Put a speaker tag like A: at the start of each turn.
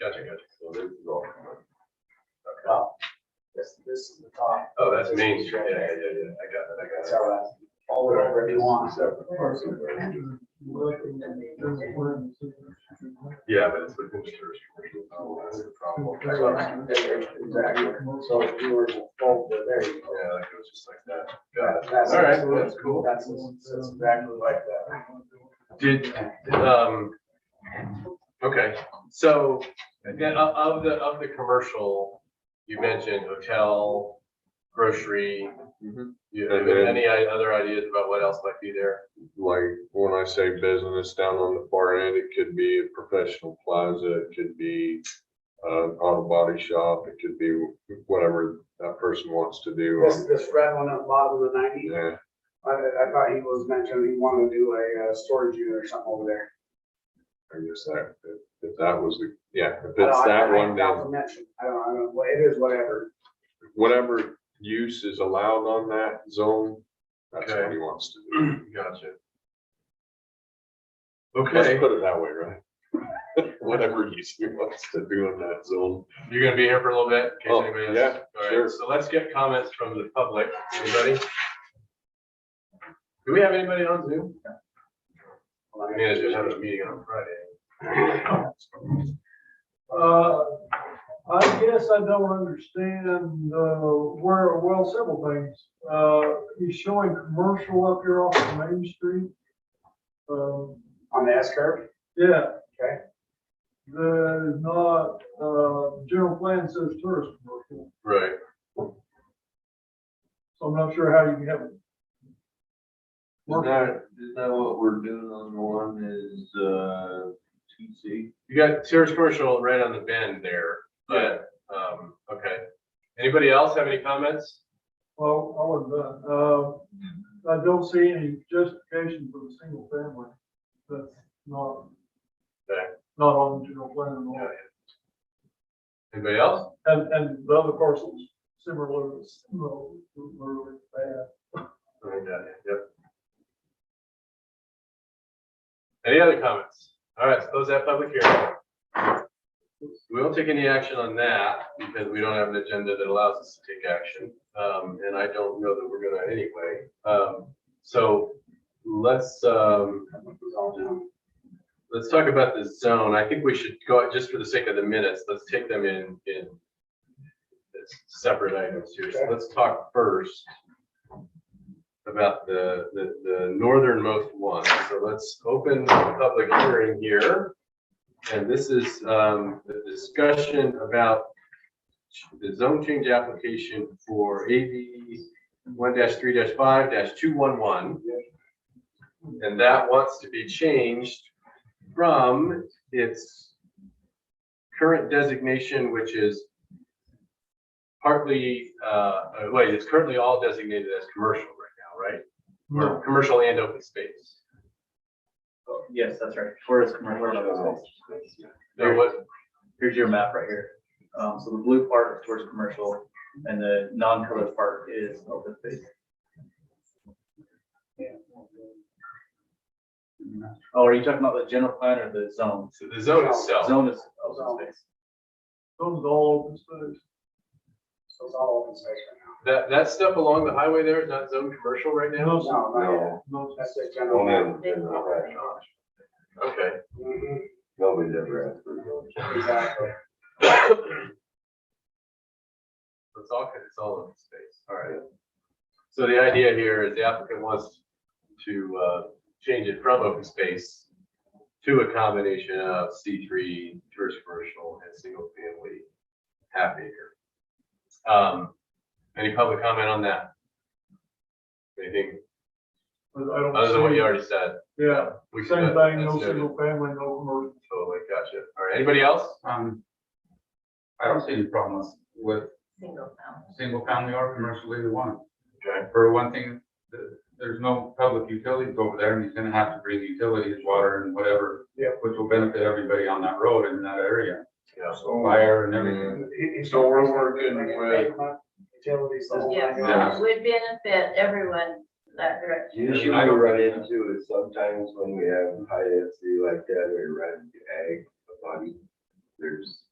A: Gotcha, gotcha.
B: So this is all.
A: Okay.
C: Well, This, this is the top,
A: Oh, that's Main Street. Yeah, yeah, yeah, yeah. I got that, I got
C: that's
A: that.
C: our last, all the over if you want.
A: Yeah, but it's within the jurisdiction. Oh, that's the problem. Yeah, like
C: Exactly, so if you were to fold it, there you go.
A: it was just like that. Got it.
C: That's
A: All right,
C: absolutely-
A: that's cool.
C: That's, that's exactly like that.
A: Did, um, okay, so, again, o- of the, of the commercial, you mentioned hotel, grocery.
B: Mhm.
A: You,
D: And then-
A: any i- other ideas about what else might be there?
D: like when I say business down on the far end, it could be a professional plaza, it could be an auto body shop, it could be whatever that person wants to do.
C: This, this red one at the bottom of the ninety,
D: Yeah,
C: I, I thought he was mentioning he wanted to do a, uh storage unit or something over there.
D: I guess that, if- if that was the, yeah, if
C: I don't-
D: it's
C: I-
D: that
C: I-
D: one,
C: That
D: then
C: was mentioned, I don't, I don't, well, it is whatever,
D: whatever use is allowed on that zone, that's what he wants to do.
A: Gotcha.
D: Let's
A: Okay,
D: put it that way, right? Whatever use he wants to do in that zone.
A: you're gonna be here for a little bit? in case
D: Oh,
A: anybody has-
D: yeah,
A: All right,
D: sure.
A: So let's get comments from the public. Anybody? Do we have anybody on Zoom?
C: Well, I-
A: Managers have a meeting on Friday.
E: Uh, I guess I don't understand, uh, where, well, several things. Uh, he's showing commercial up here off of Main Street. Um,
C: on the S curve.
E: yeah.
C: Okay.
E: That is not, uh, general plan says tourist commercial,
A: Right.
E: so I'm not sure how you can have it.
B: Isn't that, isn't that what we're doing on the one is, uh, TC?
A: You got Sears Commercial right on the bend there, but, um, okay. Anybody else have any comments?
E: Well, I was, uh, I don't see any justification for the single family. That's not,
A: Okay.
E: not on general plan at all.
A: Anybody else?
E: And, and the other parcels similar, similarly bad.
A: I mean, uh, Yep. Any other comments? All right, so close that public hearing. We won't take any action on that because we don't have an agenda that allows us to take action. Um, and I don't know that we're gonna anyway. Um, so let's, um, let's talk about the zone. I think we should go, just for the sake of the minutes, let's take them in, in as separate items here. So let's talk first about the, the, the northernmost one. So let's open the public hearing here. And this is, um, the discussion about the zone change application for AV one three five two one one. And that wants to be changed from its current designation, which is partly, uh, uh, wait, it's currently all designated as commercial right now, right? Or commercial and open space.
F: Yes, that's right. Where is commercial?
A: There was,
F: Here's your map right here. Um, so the blue part is towards commercial and the non-colored part is open space. Oh, are you talking about the general plan or the zone?
A: the zone itself,
F: Zone is open space.
E: Those are all open space.
C: So it's all open space right now.
A: that, that stuff along the highway there is not zone commercial right now?
C: No, not yet.
B: No,
E: No,
C: that's just
B: no,
C: general.
B: no, no,
A: Okay.
C: Mhm,
B: nobody's ever asked for those.
C: Exactly.
A: It's all, it's all open space, all right. So the idea here is the applicant wants to, uh, change it from open space to a combination of C three, tourist commercial, and single family half acre. Um, any public comment on that? Anything
E: I I don't.
A: other than what
E: see-
A: you already said?
E: Yeah,
A: We can-
E: same thing,
A: that's
E: no
A: noted.
E: single family, no commercial.
A: Totally, gotcha. All right, anybody else?
G: Um, I don't see any problems with
H: single family.
G: single family or commercial either one.
A: Okay.
G: For one thing, th- there's no public utilities over there and he's gonna have to bring utilities, water and whatever.
C: Yeah.
G: Which will benefit everybody on that road in that area,
A: Yeah.
G: fire and everything.
D: So we're working with-
C: Utilities. the whole nine
H: Yes,
C: yards.
H: it would benefit everyone that direction.
B: Usually we run into is sometimes when we have high density like that, we run ag, a body. There's